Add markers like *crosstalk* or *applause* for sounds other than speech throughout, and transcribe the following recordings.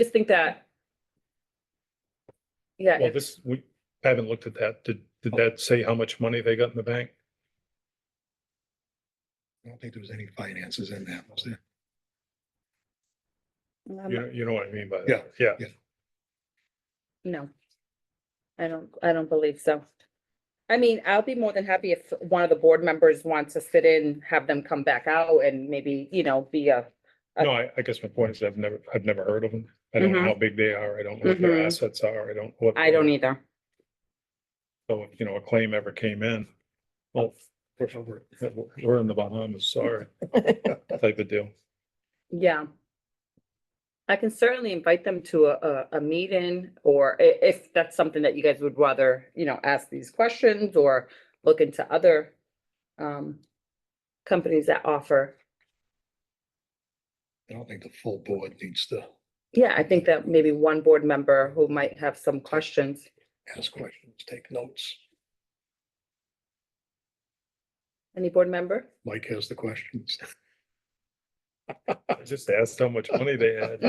just think that. Yeah, Well, if- this, we haven't looked at that. Did, did that say how much money they got in the bank? I don't think there was any finances in that, was there? I'm- Um, You, know- you know what I mean by that? Yeah, Yeah. no. I don't, I don't believe so. I mean, I'll be more than happy if one of the board members wants to sit in, have them come back out and maybe, you know, be a, Uh, No, I, I guess my point is I've never, I've never heard of them. I don't know Mhm. how big they are. I don't know what Mhm. their assets are. I don't. what I don't e- their- either. So, if, you know, a claim ever came in. Well, we're, we're in the Bahamas, *laughs* sorry. Type of deal. Yeah. I can certainly invite them to a, a, a meeting or i- if that's something that you guys would rather, you know, ask these questions or look into other um, companies that offer. I don't think the full board needs to Yeah, I think that maybe one board member who might have some questions. ask questions, take notes. Any board *laughs* member? Mike has the questions. I just asked how much money they had.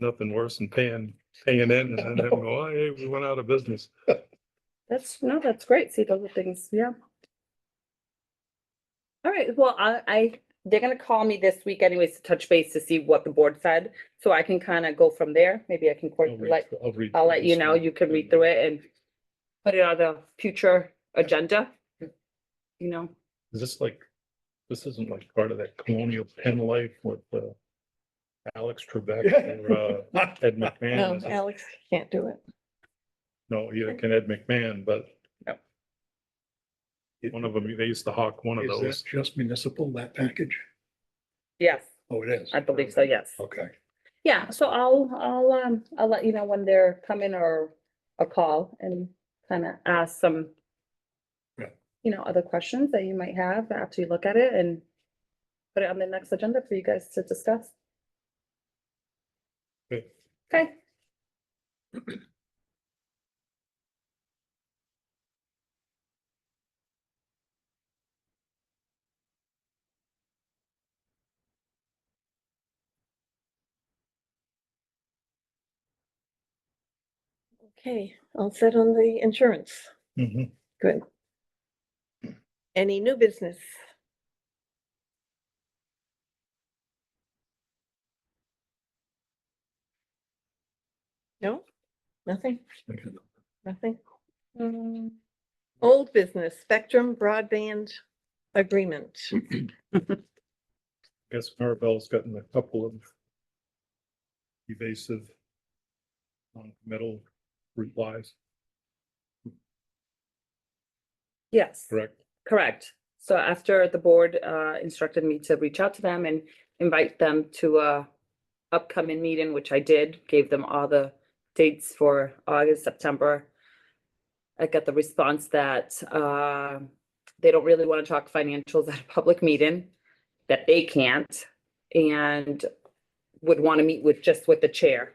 Nothing worse than paying, paying in and then having, to go, oh, hey, we went out of business. *laughs* That's, no, that's great. See, those are things, yeah. All right, well, I, I, they're gonna call me this week anyways to touch base to see what the board said, so I can kind of go from there. Maybe I can, cor- I'll read like, through- I'll read I'll through let you this know, one. you can read through it and put it on the future agenda. You know, Is this like, this isn't like part of that colonial pen life with uh Alex Trebek or uh Ed McMahon? No, is it? Alex can't do it. No, either can Ed McMahon, but No. one of them, they used to hawk one of Is that those. just municipal, that package? yes, Oh, it is. I believe so, yes. Okay. Yeah, so I'll, I'll, um, I'll let you know when they're coming or a call and kind of ask some. Yeah. You know, other questions that you might have after you look at it and put it on the next agenda for you guys to discuss. Okay. Okay. Okay, all set on the insurance. Mhm. Good. Any new business? No, nothing, nothing. Mm, Old business, Spectrum Broadband Agreement. Guess Maribel's gotten a couple of evasive metal replies, Yes. correct? Correct. So after the board uh, instructed me to reach out to them and invite them to a upcoming meeting, which I did, gave them all the dates for August, September. I got the response that uh, they don't really want to talk financials *laughs* at a public meeting, that they can't, and would want to meet with, just with the chair.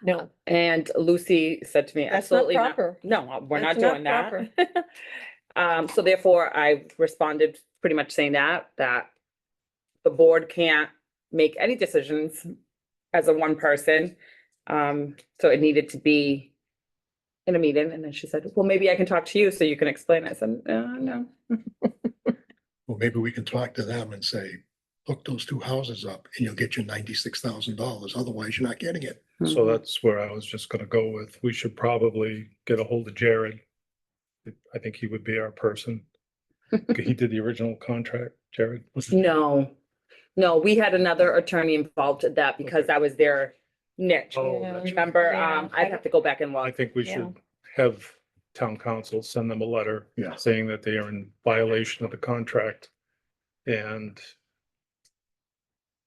No, And Lucy said to me, that's not absolutely not. proper. No, we're not That's doing not that. Um, so therefore I responded pretty much saying that, that the board can't make any decisions as a one person. Um, so it needed to be in a meeting. And then she said, well, maybe I can talk to you so you can explain it. I said, uh, no. Well, maybe we can talk to them and say, hook those two houses up and you'll get your ninety-six thousand dollars. Otherwise, you're not getting it. So Mm-hmm. that's where I was just gonna go with, we should probably get a hold of Jared. I think he would be our person. He did the original contract, Jared. No, no, we had another attorney involved in that because that was their niche. Oh, Yeah. that's right. Remember, Yeah. um, I'd have to go back and I look. think we should have town council send them a letter. Yeah. Saying that they are in violation of the contract and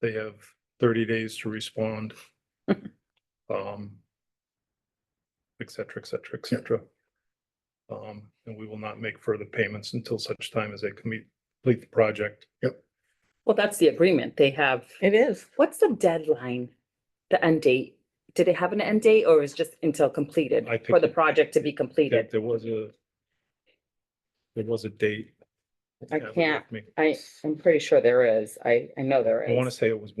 they have thirty days *laughs* to respond. Um, et cetera, et cetera, et cetera. Um, and we will not make further payments until such time as they complete, complete the project. Well, that's the agreement. They have It is. What's the deadline, the end date? Did it have an end date or is just until completed I think for the it- project to be That completed? There was a, there was a date I have it can't. with me. I, I'm pretty sure there is. I, I know there is. I want to say it was one.